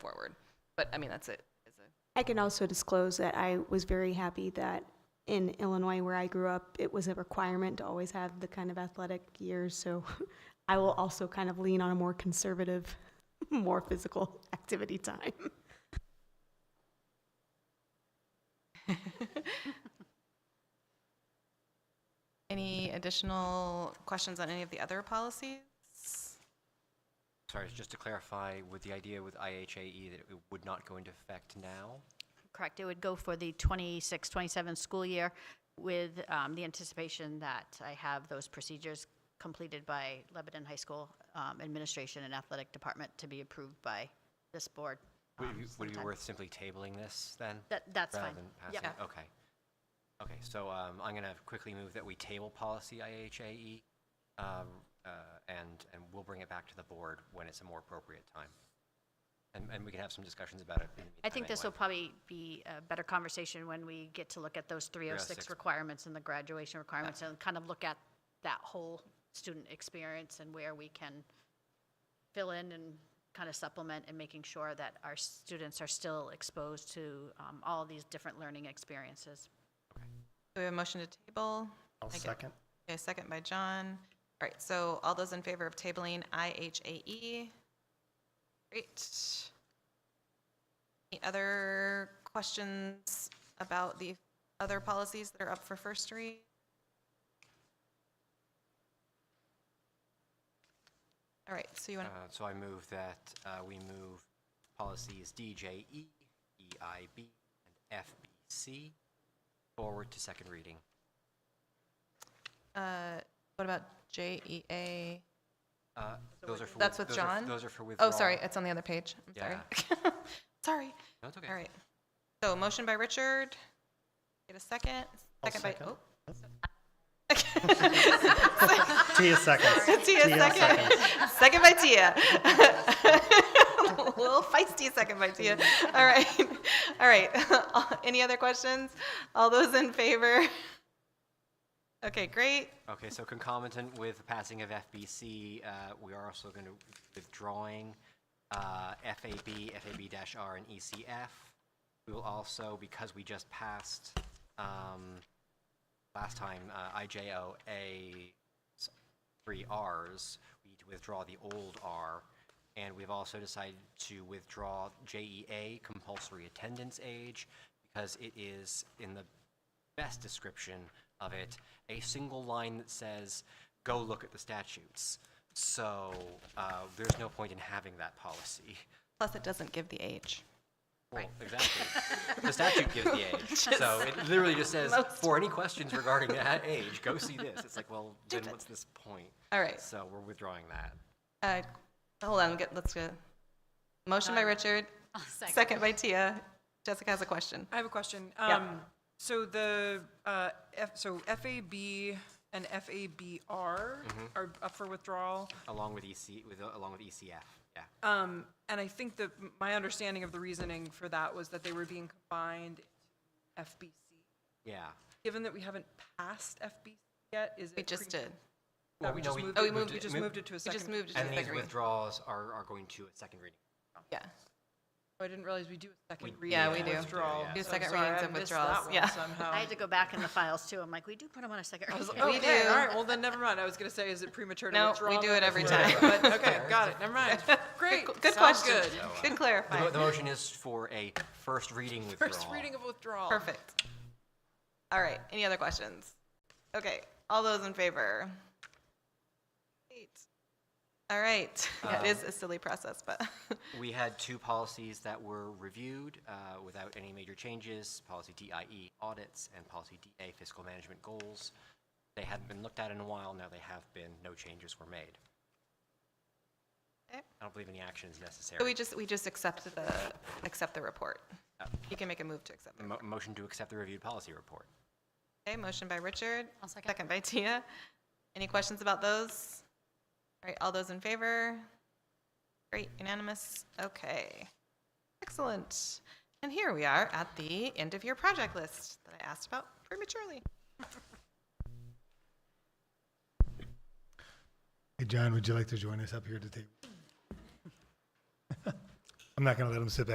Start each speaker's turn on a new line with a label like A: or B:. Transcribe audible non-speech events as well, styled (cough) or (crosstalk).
A: But I mean, that's it. It's a-
B: I can also disclose that I was very happy that in Illinois, where I grew up, it was a requirement to always have the kind of athletic years. So (laughs) I will also kind of lean on a more conservative, (laughs) more physical activity time.
A: Any additional questions on any of the other policies?
C: Sorry, just to clarify, with the idea with IHAE E that it would not go into effect now?
D: Correct, it would go for the 26, 27 school year with um, the anticipation that I have those procedures completed by Lebanon High School um, Administration and Athletic Department to be approved by this board.
C: Would
D: um,
C: it be- would it be
D: sometime.
C: worth simply tabling this then?
D: That, that's fine.
C: Rather than
D: Yep.
C: passing it? Okay. Okay, so um, I'm going to quickly move that we table policy IHAE, um, uh, and, and we'll bring it back to the board when it's a more appropriate time. And, and we can have some discussions about it. in the
D: I think
C: meantime
D: this will
C: anyway.
D: probably be a better conversation when we get to look at those 306
C: 306.
D: requirements and the graduation requirements and kind of look at that whole student experience and where we can fill in and kind of supplement and making sure that our students are still exposed to um, all these different learning experiences.
A: Do we have a motion to table?
E: I'll
A: Okay.
E: second.
A: Okay, second by John. All right, so all those in favor of tabling IHAE? E? Great. Any other questions about the other policies that are up for first read? All right, so you want to
C: Uh, So I move that uh, we move policies E, DJE, EIB, and FBC forward to second reading.
A: Uh, what about E JEA?
C: Uh, Those are for.
A: That's with
C: those are f-
A: John?
C: Those are for withdrawal.
A: Oh, sorry, it's on the other page. I'm sorry. (laughs) Sorry.
C: No, it's okay.
A: All right. So motion by Richard. Get a second.
E: I'll
A: Second by,
E: second.
A: oh, (laughs)
E: Tia seconds.
A: Tia, second. (laughs) Second by Tia. Little feisty second by
C: (laughs)
A: Tia. All right. All right. (laughs) Any other questions? All those in favor? Okay, great.
C: Okay, so concomitant with the passing of FBC, uh, we are also going to withdrawing uh, FAB, FAB-R, and ECF. We will also, because we just passed um, last time, uh, IJOA, s- three Rs, we need to withdraw the old R. And we've also decided to withdraw JEA, compulsory attendance age, because it is in the best description of it, a single line that says, go look at the statutes. So uh, there's no point in having that policy.
A: Plus, it doesn't give the age.
C: Well, exactly.
F: (laughs)
C: The statute gives the age. So it literally just says, for any questions regarding that age, go see this. It's like,
F: (laughs)
C: well, then what's this point?
A: All right.
C: So we're withdrawing that.
A: Uh, Hold on, get- let's go. Motion by Richard, second by Tia. Jessica has a question.
F: I have a question. Um, So the, uh, F, so FAB and FABR are up for withdrawal.
C: Along with EC, with, along with ECF, yeah.
F: Um, and I think that my understanding of the reasoning for that was that they were being combined into FBC.
C: Yeah.
F: oh, Given that we haven't passed FBC yet, is it?
A: We just
F: prema-
A: did.
F: No,
C: Well,
F: we
C: no,
F: just
C: we-
F: moved
A: oh,
F: it-
A: we moved
F: We
C: it-
F: just
C: mov-
F: moved it to a
A: We
F: second.
A: just moved it to
C: And
A: the
C: these
A: second reading.
C: withdrawals are, are going to a second reading.
A: Yeah.
F: I didn't realize we do a second
C: We-
F: reading.
A: Yeah,
F: and
A: we
F: a
A: do.
F: Withdrawal.
C: Yeah.
A: Do
F: So
A: second
F: sorry,
A: readings
F: I
A: and
F: missed
A: withdrawals,
F: that one
A: yeah.
F: Somehow.
D: I had to go back in the files too. I'm like, we do put them on a second.
F: I was like, "Oh,
D: reading."
A: We
F: okay,
A: do.
F: all right, well, then never mind. I was going to say, is it premature to
A: No, we
F: withdraw?
A: do
F: them
A: it every
F: before-
A: time.
F: But, okay, got it,
A: (laughs)
F: never mind. Great,
A: Good
F: sounds
A: question.
F: good.
A: Good
C: The mo-
A: clarifying.
C: The motion is for a first reading withdrawal.
F: First reading of withdrawal.
A: Perfect. All right, any other questions? Okay, all those in favor? Great. All right, (laughs) it is a silly process, but,
C: We had two policies that were reviewed uh, without any major changes, policy DIE audits and policy DA fiscal management goals. They hadn't been looked at in a while, now they have been, no changes were made.
F: Eh.
C: I
A: Okay.
C: don't believe any action is
A: but (laughs) we
C: necessary.
A: just, we just accept the, accept the report.
C: Uh,
A: You can make a move to accept the
C: mo- Motion to accept the reviewed policy report.
A: Okay, motion by Richard.
D: I'll second.
A: Second by Tia. Any questions about those? All right, all those in favor? Great, unanimous. Okay. Excellent. And here we are at the end of your project list that I asked about prematurely.
G: Hey, John, would you like to join us up here at the table? (laughs) I'm not going to let him sit back.